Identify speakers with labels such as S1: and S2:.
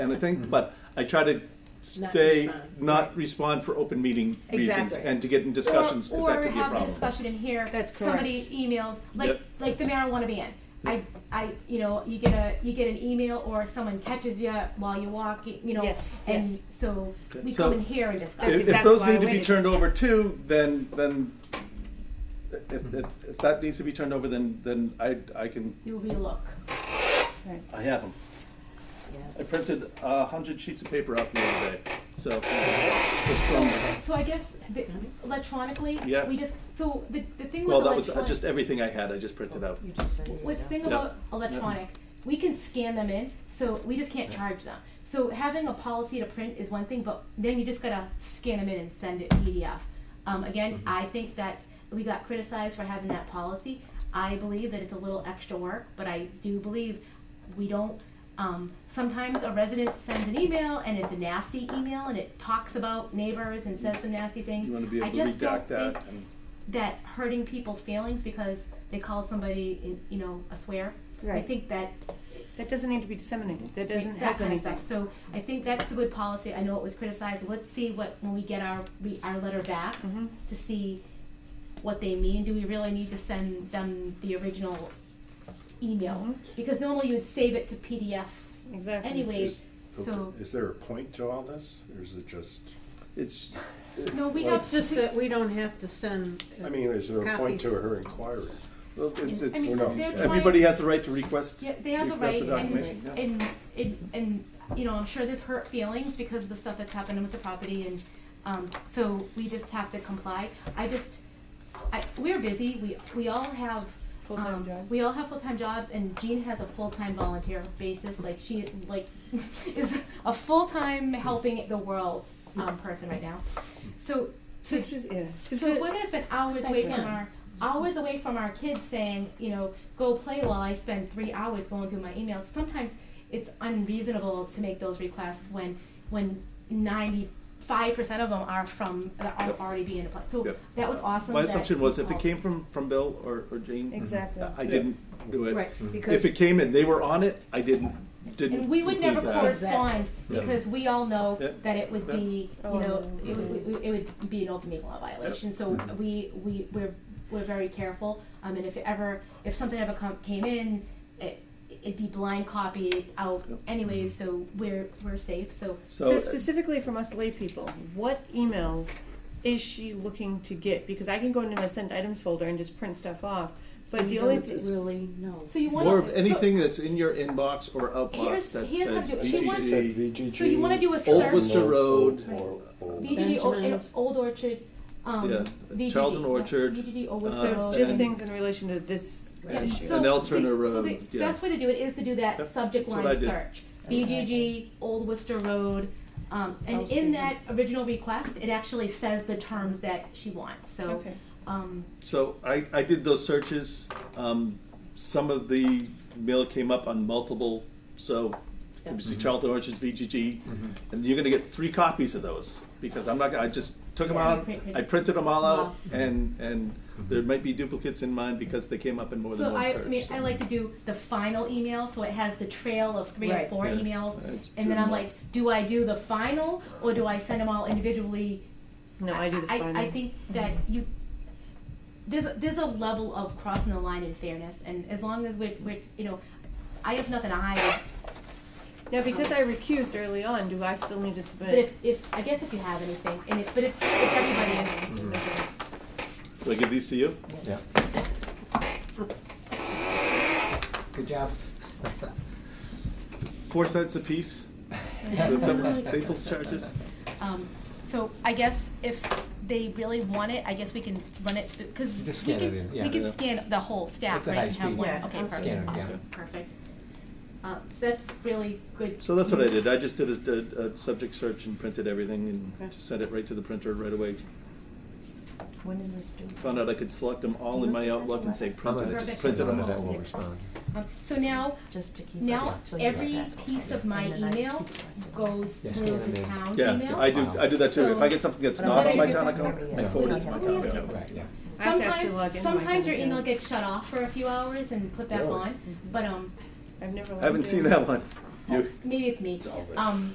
S1: and I think, but I try to stay, not respond for open meeting reasons
S2: Exactly.
S1: and to get in discussions, because that could be a
S3: Or have a
S1: problem.
S3: discussion in here.
S2: That's
S3: Somebody emails, like,
S1: Yep.
S3: like the marijuana ban. I, I, you know, you get a, you get an email or someone catches you while you're walking, you know,
S2: Yes,
S3: and
S2: yes.
S3: so we
S1: So-
S3: come in here and discuss.
S2: That's
S1: If, if
S2: exactly
S1: those
S2: why I
S1: need to be
S2: waited.
S1: turned over too, then, then, if, if, if that needs to be turned over, then, then I, I can,
S3: You relook.
S1: I have them. I printed a hundred sheets of paper out the other day, so, just from,
S3: So I guess the- electronically,
S1: Yeah.
S3: we just, so the, the thing with
S1: well, that was uh,
S3: electronic.
S1: just everything I had, I just printed out.
S3: What's the thing
S1: Yeah.
S3: about electronic, we can scan them in, so we just can't charge them. So having a policy to print is one thing, but then you just gotta scan them in and send it PDF. Um,
S1: Mm-hmm.
S3: again, I think that we got criticized for having that policy. I believe that it's a little extra work, but I do believe we don't, um, sometimes a resident sends an email and it's a nasty email and it talks about neighbors and says some nasty things.
S1: You wanna be able
S3: I
S1: to
S3: just don't
S1: redact that
S3: think-
S1: and-
S3: that hurting people's feelings because they called somebody, in, you know, a swear. I
S2: Right.
S3: think that
S2: That doesn't need to be disseminated, that doesn't
S3: that
S2: help
S3: kind of
S2: anything.
S3: stuff. So I think that's a good policy. I know it was criticized. Let's see what when we get our we, our letter back
S2: Mhm.
S3: to see what they mean. Do we really need to send them the original email?
S2: Mhm.
S3: Because normally you would save it to PDF
S2: Exactly.
S3: anyways.
S4: Okay,
S3: So
S4: Is there a point to all this, or is it just,
S1: It's,
S3: no, we
S4: Well,
S3: have
S5: It's just that we don't have to send. uh,
S4: I mean, is there a point to
S5: Copies.
S4: her inquiry?
S1: well, it's, it's.
S3: I mean,
S4: We're not-
S3: they're trying-
S1: Everybody has the right to request.
S3: Yeah, they have the
S1: request
S3: right,
S1: the documentation,
S3: and,
S1: yeah.
S3: and, and, and, you know, I'm sure this hurt feelings because of the stuff that's happening with the property and, um, so we just have to comply. I just, I, we're busy, we, we all have,
S2: Full-time
S3: um,
S2: jobs.
S3: we all have full-time jobs and Jean has a full-time volunteer basis, like she, like, is a full-time helping the world, um, person right now. So,
S2: So, spe- yeah,
S3: so if
S2: spe-
S3: we're gonna spend hours away from our, hours away from our kids saying, you know, go play while I spend three hours going through my emails, sometimes it's unreasonable to make those requests when, when ninety-five percent of them are from, that are
S1: Yep.
S3: already being applied. So
S1: Yep.
S3: that was awesome
S1: My
S3: that Oh.
S1: assumption was if
S3: you
S1: it came from, from Bill or, or Jane. uh,
S2: Exactly.
S1: I didn't do it.
S5: Right, because
S1: If it came and they were on it, I didn't,
S3: called.
S1: didn't.
S3: And we would
S1: include
S3: never
S1: that.
S3: correspond because we all know
S1: Yeah.
S3: that it would
S1: Yeah.
S3: be, you
S2: Oh,
S3: know,
S2: no.
S3: it would, it would- it would be an open meeting law violation. So
S1: Mm-hmm.
S3: we, we, we're, we're very careful. Um, and if it ever, if something ever come, came in, it, it'd be blind copied out
S1: Yep.
S3: anyways, so we're, we're safe, so.
S2: so
S1: So, uh,
S2: specifically from us lay people, what emails is she looking to get? Because I can go into my sent items folder and just print stuff off, but
S5: we
S2: the only
S5: don't
S2: thing,
S5: really know.
S3: So you wanna.
S1: more of
S3: so-
S1: anything that's in your inbox or
S3: Here's-
S1: outbox that
S3: here's how
S1: says
S3: to do it. She wants-
S1: VGG.
S3: so you wanna do a
S1: Old Worcester
S3: search.
S1: Road.
S4: Or- or- or-
S3: VGG, Old-
S5: Benjamins.
S3: Old Orchard, um,
S1: Yeah,
S3: VGG,
S1: Charlton
S3: yeah,
S1: Orchard,
S3: VGG, Old
S1: uh,
S3: Worcester
S2: so
S3: Road.
S2: just
S1: and-
S2: things in relation to this
S1: and-
S2: issue.
S1: and L Turner
S3: so
S1: Road,
S3: the
S1: yeah.
S3: best way to do it is to do that
S1: Yep,
S3: subject
S1: that's what
S3: line
S1: I did.
S3: search. BGG, Old Worcester Road, um, and in that original request, it actually says the terms that she wants, so,
S2: Okay.
S3: um,
S1: So I, I did those searches. Um, some of the mail came up on multiple, so you see Charlton
S3: Mm-hmm.
S1: Orchards, VGG, and you're gonna get three copies of those because I'm not. gonna- I just took them
S3: Yeah,
S1: out.
S3: print- print.
S1: I printed them all
S3: Wow.
S1: out, and and there might be duplicates in mine because they came up in more than
S3: so
S1: one
S3: I, I
S1: search.
S3: mean, I like to do the final email, so it has the trail of three or
S5: Right.
S3: four
S1: Yeah.
S3: emails.
S1: That's
S3: And then
S1: true.
S3: I'm like, do I do the final, or do I send them all individually
S2: No, I do the final.
S3: I, think that you, there's, there's a level of crossing the line in fairness, and as long as we're, we're, you know, I have nothing to hide,
S2: Now, because I recused early on, do I still need to submit?
S3: but if, if, I guess if you have anything, and it, but it's, it's everybody else's.
S6: Mm-hmm.
S1: Do I give these to you?
S6: Yeah. Good job.
S1: Four cents a piece. the Naples- Naples charges.
S3: Um, so I guess if they really want it, I guess we can run it, because we
S6: Just scan it
S3: can,
S6: in,
S3: we
S6: yeah.
S3: can scan the whole stack,
S6: It's a
S3: right, and
S6: high
S3: have
S6: speed.
S3: one,
S2: Yeah,
S3: okay,
S2: I'll
S6: scan
S3: perfect,
S6: it, yeah.
S3: awesome, perfect. Um, so that's really good.
S1: So that's what I
S3: news.
S1: did. I just did a, a, a subject search and printed everything and just sent it right to the printer right away.
S2: When is this due?
S1: Found out I could select them all in my Outlook and say printed. It just printed them
S6: That
S1: all.
S6: will respond.
S3: Um, So now,
S7: just to keep
S3: Now,
S7: us till you get
S3: every
S7: back.
S3: piece of my
S7: And then I just
S3: email
S7: keep it.
S3: goes through
S6: Yeah, scan
S3: the
S6: them in.
S3: town
S1: Yeah, I
S3: email.
S1: do. I do that too. If I get something that's
S3: But I'm
S1: not on my
S3: gonna
S1: town
S3: do that
S1: account, I
S7: Yeah.
S1: forward it to my town account.
S6: Right, yeah.
S2: I have to actually log
S3: Sometimes,
S2: into my
S3: sometimes your
S2: Gmail.
S3: email gets shut off for a few hours and put back
S1: Really?
S3: on, but, um,
S2: I've never.
S1: I haven't
S2: logged in.
S1: seen that one.
S3: You-
S4: maybe it's me.
S3: It's all right.
S4: Um,